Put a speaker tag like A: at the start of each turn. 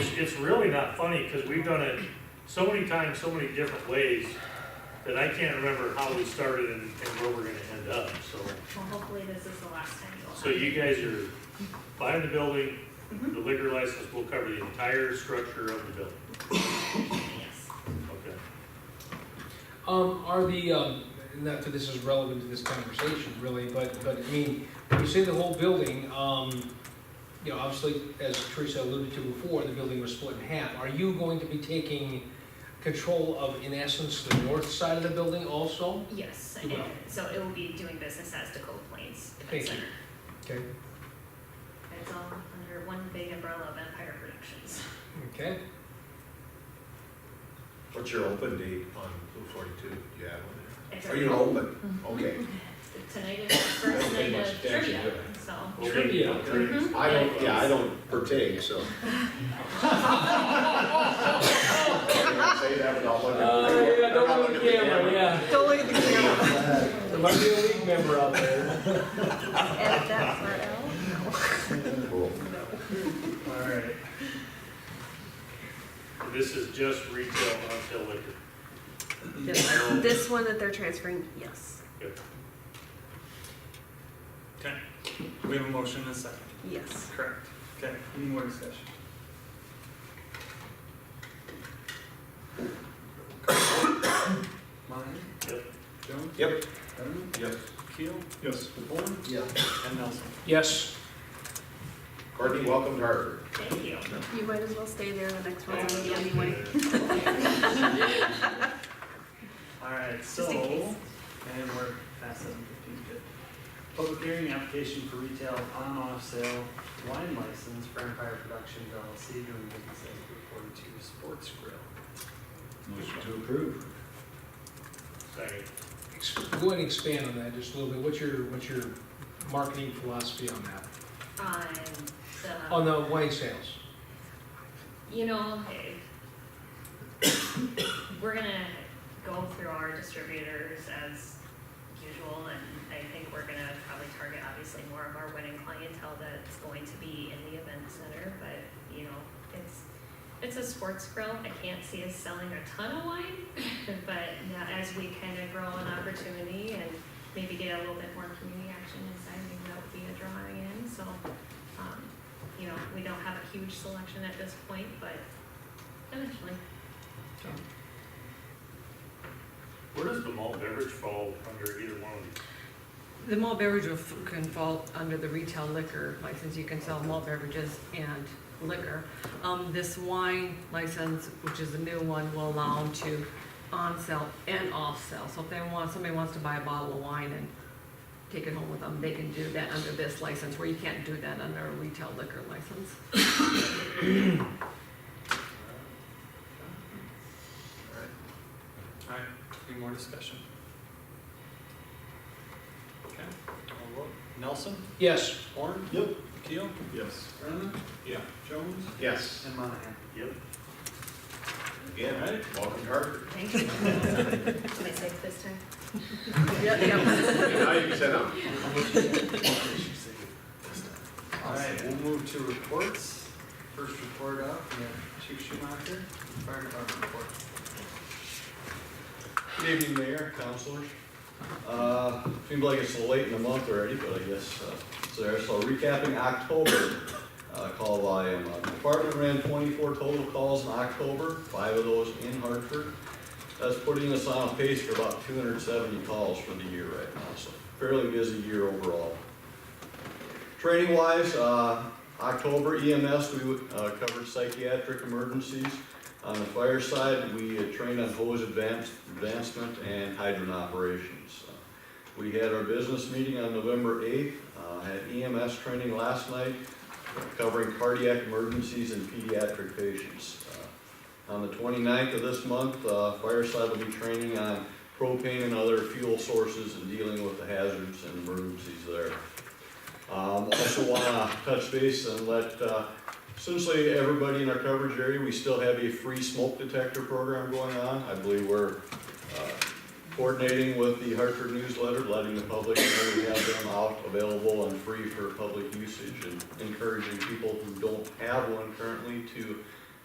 A: it's really not funny, because we've done it so many times, so many different ways, that I can't remember how we started and, and where we're gonna end up, so.
B: Well, hopefully this is the last time you'll.
A: So you guys are buying the building, the liquor license will cover the entire structure of the building,
B: Yes.
A: okay?
C: Um, are the, um, not that this is relevant to this conversation really, but, but I mean, when you say the whole building, um, you know, obviously, as Teresa alluded to before, the building was split in half. Are you going to be taking control of, in essence, the north side of the building also?
B: Yes,
C: You will.
B: and so it will be doing business as Dakota Plains Event
C: Thank you.
B: Center.
C: Okay.
B: It's all under one big umbrella of Empire Productions.
C: Okay,
D: What's your open date on Blue Forty-two? Do you have one?
B: It's
D: Are you
B: already-
D: open? Okay.
B: Tonight is the first
D: Don't pay
B: night
D: much
B: of
D: attention
B: trivia,
D: to it.
B: so.
A: Well, we-
C: Trivia.
A: okay.
D: I don't, yeah, I don't partake, so. I say that without
C: Uh,
D: looking. without looking at
C: yeah.
E: Don't look at the camera.
C: There might be a league member out there.
E: Edit that part out.
D: Cool.
C: Alright.
A: This is just retail until liquor.
E: Yes. This one that they're transferring, yes,
F: Okay, we have a motion and a second.
E: yes.
F: Correct. Okay, any more discussion? Meyer?
A: Yep.
F: Jones?
D: Yep,
F: Letterman?
D: yep.
F: Keel? Yes. Horn?
D: Yeah.
F: And Nelson?
C: Yes.
D: Courtney, welcome to Hartford.
A: Thank you.
E: You might as well stay there, the next one's on you anyway.
F: Alright, so,
E: Just in case.
F: and we're past seven fifteen, good. Public hearing application for retail on-off sale wine license for Empire Productions LLC doing business as Route Forty-two Sports Grill.
D: Motion to approve.
A: Second.
C: Ex- Go ahead and expand on that just a little bit. What's your, what's your marketing philosophy on that?
B: On um,
C: On the wine Oh, sales?
B: the, you know, we're gonna go through our distributors as usual, and I think we're gonna probably target obviously more of our winning clientele that's going to be in the event center, but, you know, it's, it's a sports grill, I can't see us selling a ton of wine, but now as we kind of grow an opportunity and maybe get a little bit more community action inside, maybe that would be a drawing in, so, um, you know, we don't have a huge selection at this point, but eventually.
A: Where does the malt beverage fall under either one of these?
G: The malt beverage will f- can fall under the retail liquor license, you can sell malt beverages and liquor. Um, this wine license, which is the new one, will allow them to on-sell and off-sell. So if they want, somebody wants to buy a bottle of wine and take it home with them, they can do that under this license, where you can't do that under a retail liquor license.
F: Alright, any more discussion? Okay, I'll vote. Nelson?
C: Yes.
F: Horn?
D: Yep.
F: Keel?
D: Yes.
F: Brennan?
D: Yeah.
F: Jones?
D: Yes,
F: And Monahan.
A: Yep.
D: again, welcome to Hartford.
B: Thank you. Am I safe this time?
G: Yep, yep.
D: And now you can sit down.
F: All right, we'll move to reports. First report up, we have Chief Schumacher, Fire Department report.
H: Good evening, Mayor, councilors. Uh, Seems like it's late in the month already, but I guess uh, it's there. So recapping October, uh, call volume, uh, department ran 24 total calls in October, five of those in Hartford. That's putting us on a pace for about 270 calls for the year right now, so fairly busy year overall. Training wise, October EMS, we uh, covered psychiatric emergencies. On the fire side, we uh, trained on hose advance- advancement and hydrant operations. Uh, We had our business meeting on November 8th, uh, had EMS training last night covering cardiac emergencies and pediatric patients. Uh, On the 29th of this month, uh, fire side will be training on propane and other fuel sources and dealing with the hazards and emergencies there. Um, Also want to touch base and let uh, Essentially, everybody in our coverage area, we still have a free smoke detector program going on. I believe we're uh, coordinating with the Hartford newsletter, letting the public know we have them out, available and free for public usage, and encouraging people who don't have one currently to